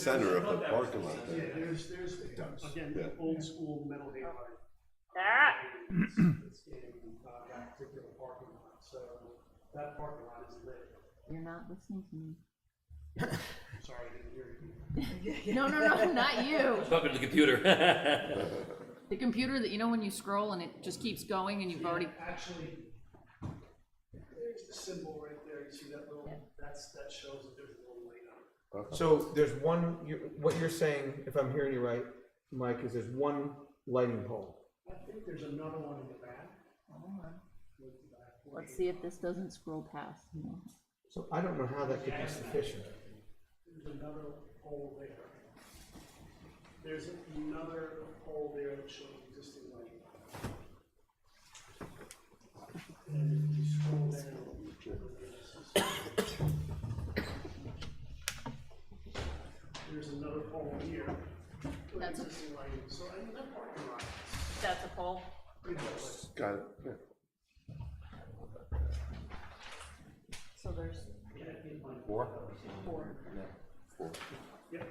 center of the parking lot there. There's, there's, again, Yeah. old school metal halide. Ah. It's it's in uh, that particular parking lot, so that parking lot is lit. You're not listening to me. Sorry, I didn't hear you. No, no, no, not you. Talking to the computer. The computer that, you know, when you scroll and it just keeps going and you've already, Actually, there's the symbol right there, you see that little, that's, that shows that there's a little light on it. So there's one, you- what you're saying, if I'm hearing you right, Mike, is there's one lighting pole. I think there's another one in the back. With the back one. let's see if this doesn't scroll past. you know. So I don't know how that could be sufficient. There's another hole there. There's another hole there that shows existing light. And if you scroll down. There's another hole here with That's a- existing light, so I mean, that parking lot, That's a pole. pretty much, Got it, yeah. So there's Four? four. Four. yep.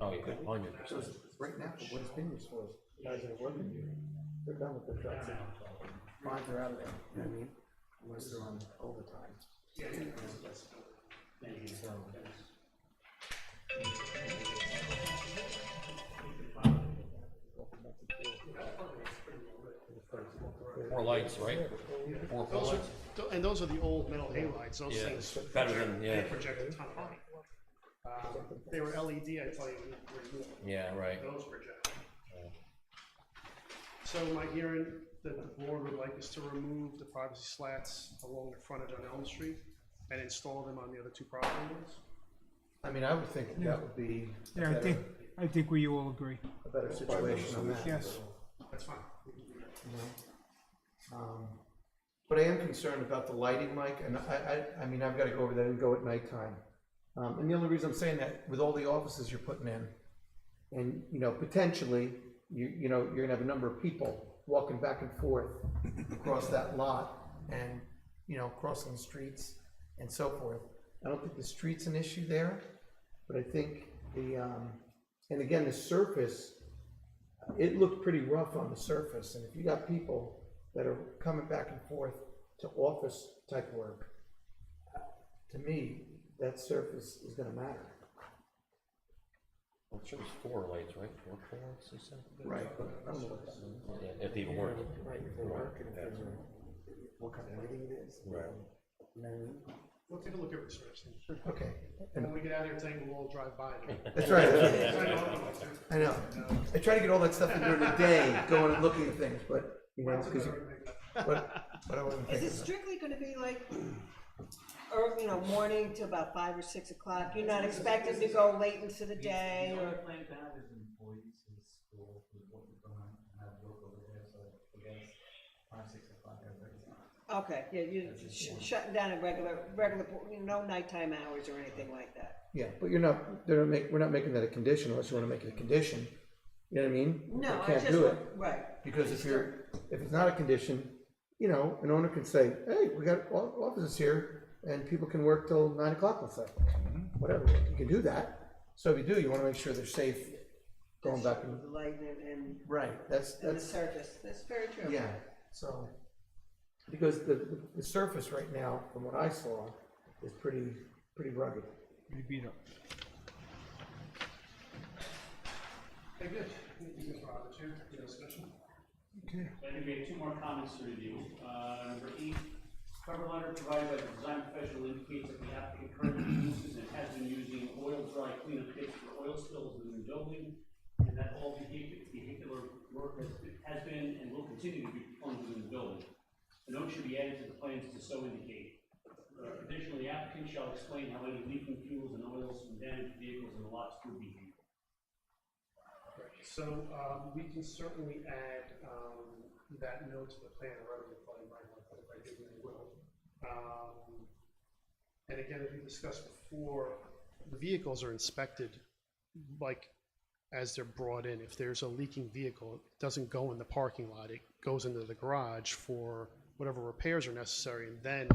Oh, yeah, on your. Right now, what it's being used for, guys that are working here, they're done with their jobs. Five are out of there, you know what I mean? Unless they're on overtime. So- Four lights, right? Four pole lights? Tho- And those are the old metal halides, those Yeah, things. it's better than- project- they yeah. project a ton of light. Um, They were LED, I tell you, we- we- Yeah, right. those project. So my hearing that the board would like is to remove the privacy slats along the frontage on Elm Street and install them on the other two property ones. I mean, I would think that would be a Yeah, I think, better, I think we all agree. a better situation on that. Yes. That's fine. we can do that. Um, But I am concerned about the lighting, Mike, and I, I, I mean, I've gotta go over there and go at nighttime. Um, and the only reason I'm saying that, with all the offices you're putting in, and, you know, potentially, you, you know, you're gonna have a number of people walking back and forth across that lot, and, you know, crossing streets and so forth. I don't think the street's an issue there, but I think the, um, and again, the surface, it looked pretty rough on the surface, and if you got people that are coming back and forth to office type work, to me, that surface is gonna matter. I'm sure it's four lights, right? Four pole lights, you said? Right. But I don't know what that means. Yeah, If they even work. Right, if they're working, if they're, what kind of lighting it is. Right. You know what I mean? We'll take a look at research. and Okay, When we get out of here, tonight, we'll all drive by. them. that's right, I know. I know. I try to get all that stuff in during the day, going and looking at things, but, you know, That's because, another thing. but, but I wasn't Is thinking it of that. strictly gonna be like, or, you know, morning to about five or six o'clock? You're not expected to go late into the day The or? only plan to have is employees who school, who work, who go home and have work over there, so I guess five, six o'clock, everybody's on. Okay, yeah, you're sh- shutting down at regular, regular, you know, no nighttime hours or anything like that. Yeah, but you're not, they're not make, we're not making that a condition unless you wanna make it a condition, you know what I mean? No, They I can't just, do it. want- right, Because if you're, if it's not a condition, you know, an owner can say, hey, we got o- offices here, and people can work till nine o'clock, let's say. Whatever, you can do that, so if you do, you wanna make sure they're safe going back and. the light and, and, Right. That's, and the that's, surface, that's very true. yeah, so, because the, the surface right now, from what I saw, is pretty, pretty rugged. We beat up. Hey, good. Thank you, Mr. Roberts, here. Any discussion? I think we have two more comments to review. Uh, Number eight, cover letter provided by the design professional indicates that the applicant currently uses and has been using oil dry cleanup kits for oil spills in the building, and that all vehi- vehicular work has been- has been and will continue to be performed within the building. A note should be added to the plans to so indicate. Uh, Additionally, the applicant shall explain how any leaking fuels and oils from damaged vehicles and lots could be handled. So, um, we can certainly add, um, that note to the plan, or rather, the plan, right, like, if I did, we will. Um, And again, as we discussed before, the vehicles are inspected, like, as they're brought in. If there's a leaking vehicle, it doesn't go in the parking lot, it goes into the garage for whatever repairs are necessary, and then